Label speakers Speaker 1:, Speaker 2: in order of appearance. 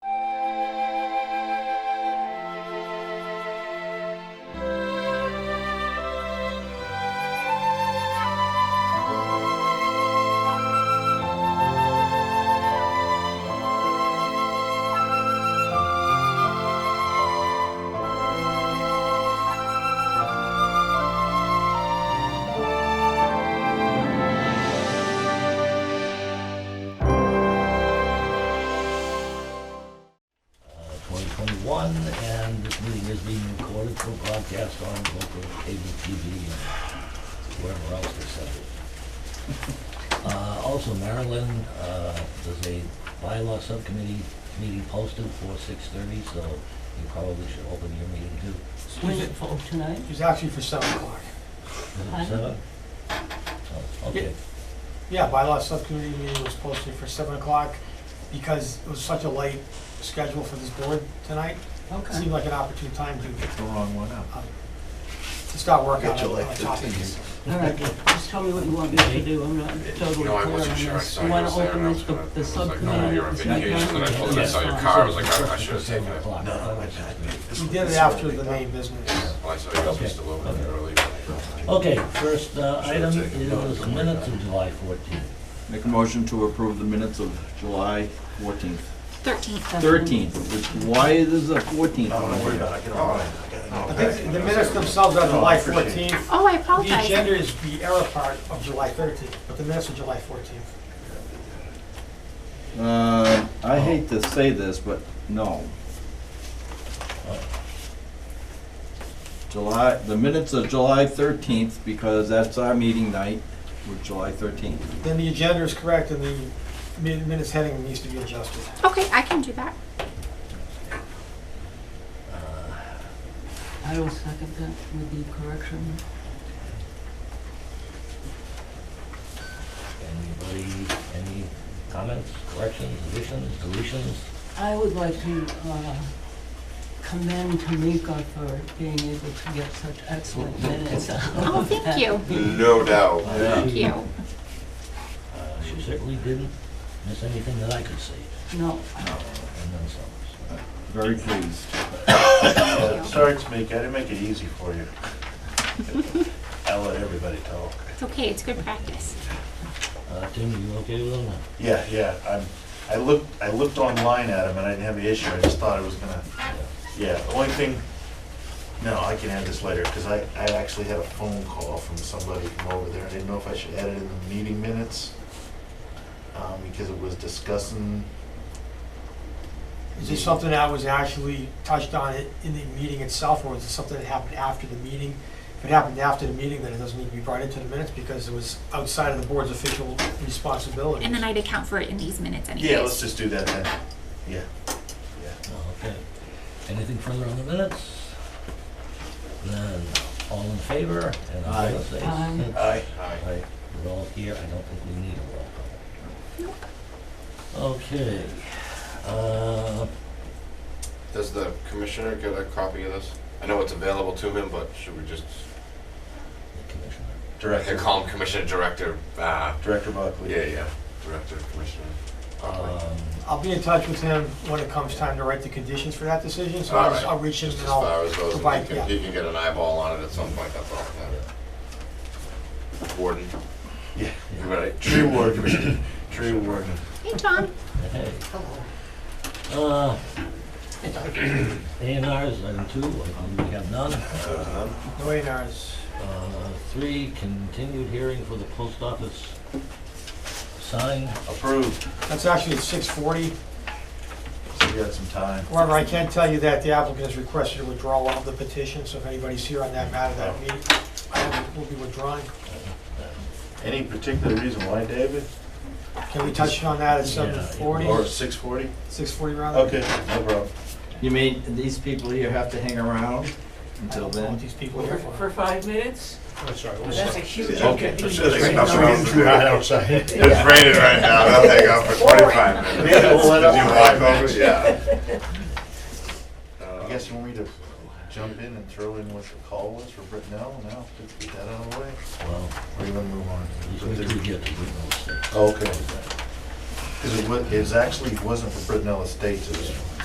Speaker 1: twenty-one, and this meeting is being recorded for broadcast on local cable TV and wherever else they sell it. Uh, also Maryland, uh, there's a bylaw subcommittee meeting posted for six-thirty, so you probably should open your meeting too.
Speaker 2: Was it for tonight?
Speaker 3: It was actually for seven o'clock.
Speaker 1: Is it
Speaker 2: Pardon?
Speaker 1: seven? Oh, okay.
Speaker 3: Yeah, bylaw subcommittee meeting was posted for seven o'clock because it was such a late schedule for this board tonight. It
Speaker 2: Okay.
Speaker 3: Seemed like an opportune time to,
Speaker 4: the wrong one out.
Speaker 3: um, to start working on
Speaker 4: Get your
Speaker 3: on
Speaker 4: life
Speaker 3: the topics.
Speaker 4: together.
Speaker 2: All right, just tell me what you want me to do, I'm not totally clear
Speaker 5: No, I
Speaker 2: on
Speaker 5: wasn't sure. I
Speaker 2: this.
Speaker 5: saw
Speaker 2: You
Speaker 5: you
Speaker 2: wanna
Speaker 5: was there, and I
Speaker 2: open this,
Speaker 5: was
Speaker 2: the
Speaker 5: gonna- I
Speaker 2: the
Speaker 5: was like, no,
Speaker 2: subcommittee?
Speaker 5: you're on
Speaker 2: It's not
Speaker 5: vacation,
Speaker 2: done
Speaker 5: and I
Speaker 2: yet.
Speaker 5: pulled it
Speaker 2: Yes,
Speaker 5: out your
Speaker 2: fine.
Speaker 5: car. I was like, I- I should have taken it.
Speaker 1: No, I not.
Speaker 3: We did it after the main business.
Speaker 5: Well, Oh, I saw you guys were still over there earlier.
Speaker 1: Okay, first uh, item
Speaker 5: Should've taken notes,
Speaker 1: is
Speaker 5: don't worry
Speaker 1: minutes
Speaker 5: about
Speaker 1: of July 14th.
Speaker 4: Make a motion to approve the minutes of July fourteenth,
Speaker 6: Thirteenth.
Speaker 4: thirteenth, Oh, which, why is it fourteenth?
Speaker 3: I think the minutes themselves are July fourteenth.
Speaker 6: Oh, I
Speaker 3: The
Speaker 6: apologize.
Speaker 3: agenda is the error part of July thirteenth, but the minutes are July fourteenth.
Speaker 4: Uh, I hate to say this, but no. July, the minutes of July thirteenth, because that's our meeting night, with July thirteenth.
Speaker 3: Then the agenda is correct and the min- minutes heading needs to be adjusted.
Speaker 6: Okay, I can do that.
Speaker 2: I will second that with the correction.
Speaker 1: Anybody, any comments, corrections, additions, deletions?
Speaker 2: I would like to uh, commend Tamika for being able to get such excellent minutes.
Speaker 6: Oh, thank you.
Speaker 5: No doubt.
Speaker 6: Thank you.
Speaker 1: Uh, She certainly didn't miss anything that I could see,
Speaker 2: No,
Speaker 1: and then some.
Speaker 4: Very pleased.
Speaker 6: Thank you.
Speaker 7: Sorry, Tamika, I didn't make it easy for you. I let everybody talk.
Speaker 6: It's okay, it's good practice.
Speaker 1: Uh, Tim, you okay with all that?
Speaker 7: Yeah, yeah, I'm, I looked, I looked online at him and I didn't have the issue, I just thought it was gonna, yeah, the only thing, no, I can add this later, because I, I actually had a phone call from somebody from over there, I didn't know if I should add it in the meeting minutes, um, because it was discussing,
Speaker 3: Is this something that was actually touched on it in the meeting itself, or is it something that happened after the meeting? If it happened after the meeting, then it doesn't need to be brought into the minutes because it was outside of the board's official responsibilities.
Speaker 6: And then I'd account for it in these minutes anyways.
Speaker 7: yeah, let's just do that then, yeah, yeah.
Speaker 1: Oh, Okay. Anything further on the minutes? Then, all in favor? And I'm gonna say-
Speaker 2: Aye.
Speaker 7: Aye. Aye.
Speaker 1: Aye. We're all here, I don't think we need a roll call.
Speaker 6: Nope.
Speaker 1: Okay, uh,
Speaker 5: Does the commissioner get a copy of this? I know it's available to him, but should we just,
Speaker 1: Commissioner.
Speaker 5: I can
Speaker 7: Director,
Speaker 5: call him Commissioner Director, uh,
Speaker 7: Director Buckley.
Speaker 5: yeah, yeah, Director, Commissioner. Buckley.
Speaker 1: Um,
Speaker 3: I'll be in touch with him when it comes time to write the conditions for that decision, so
Speaker 5: All
Speaker 3: I'll, just-
Speaker 5: right.
Speaker 3: I'll reach him
Speaker 5: Just
Speaker 3: and
Speaker 5: as
Speaker 3: I'll,
Speaker 5: far as those, and
Speaker 3: provide-
Speaker 5: he
Speaker 3: yeah.
Speaker 5: can, he can get an eyeball on it at some point, that's all. yeah. Warden.
Speaker 7: Yeah.
Speaker 5: You ready?
Speaker 7: Tree warden, tree warden.
Speaker 6: Hey, Tom.
Speaker 1: Hey. Uh, A and R's, item two, um, we have none.
Speaker 3: no A and R's.
Speaker 1: Uh, Three, continued hearing for the post office sign.
Speaker 7: Approved,
Speaker 3: That's actually at six forty.
Speaker 7: so we got some time.
Speaker 3: However, I can tell you that the applicant has requested a withdrawal of the petition, so if anybody's here on that matter, that meeting, I will be withdrawing.
Speaker 7: Any particular reason why, David?
Speaker 3: Can we touch on that at seven forty?
Speaker 7: Or six forty?
Speaker 3: Six forty rather?
Speaker 7: Okay, no problem.
Speaker 4: You mean, these people here have to hang around until
Speaker 3: I don't know
Speaker 4: then?
Speaker 3: what these people here for.
Speaker 2: five minutes?
Speaker 5: Oh,
Speaker 2: That's a huge.
Speaker 7: Okay.
Speaker 8: outside.
Speaker 5: It's raining right now, they'll hang out for twenty-five minutes.
Speaker 7: Maybe we'll let
Speaker 5: Did you
Speaker 7: up.
Speaker 5: walk over? Yeah.
Speaker 7: I guess you want me to jump in and throw in what the call was for Brittenell now, just get that out of the way?
Speaker 1: Well,
Speaker 7: Or you wanna move on?
Speaker 1: at least we do get to Whitnall Estates.
Speaker 7: Okay. Cause it wa, it was actually, it wasn't for Brittenell Estates, it was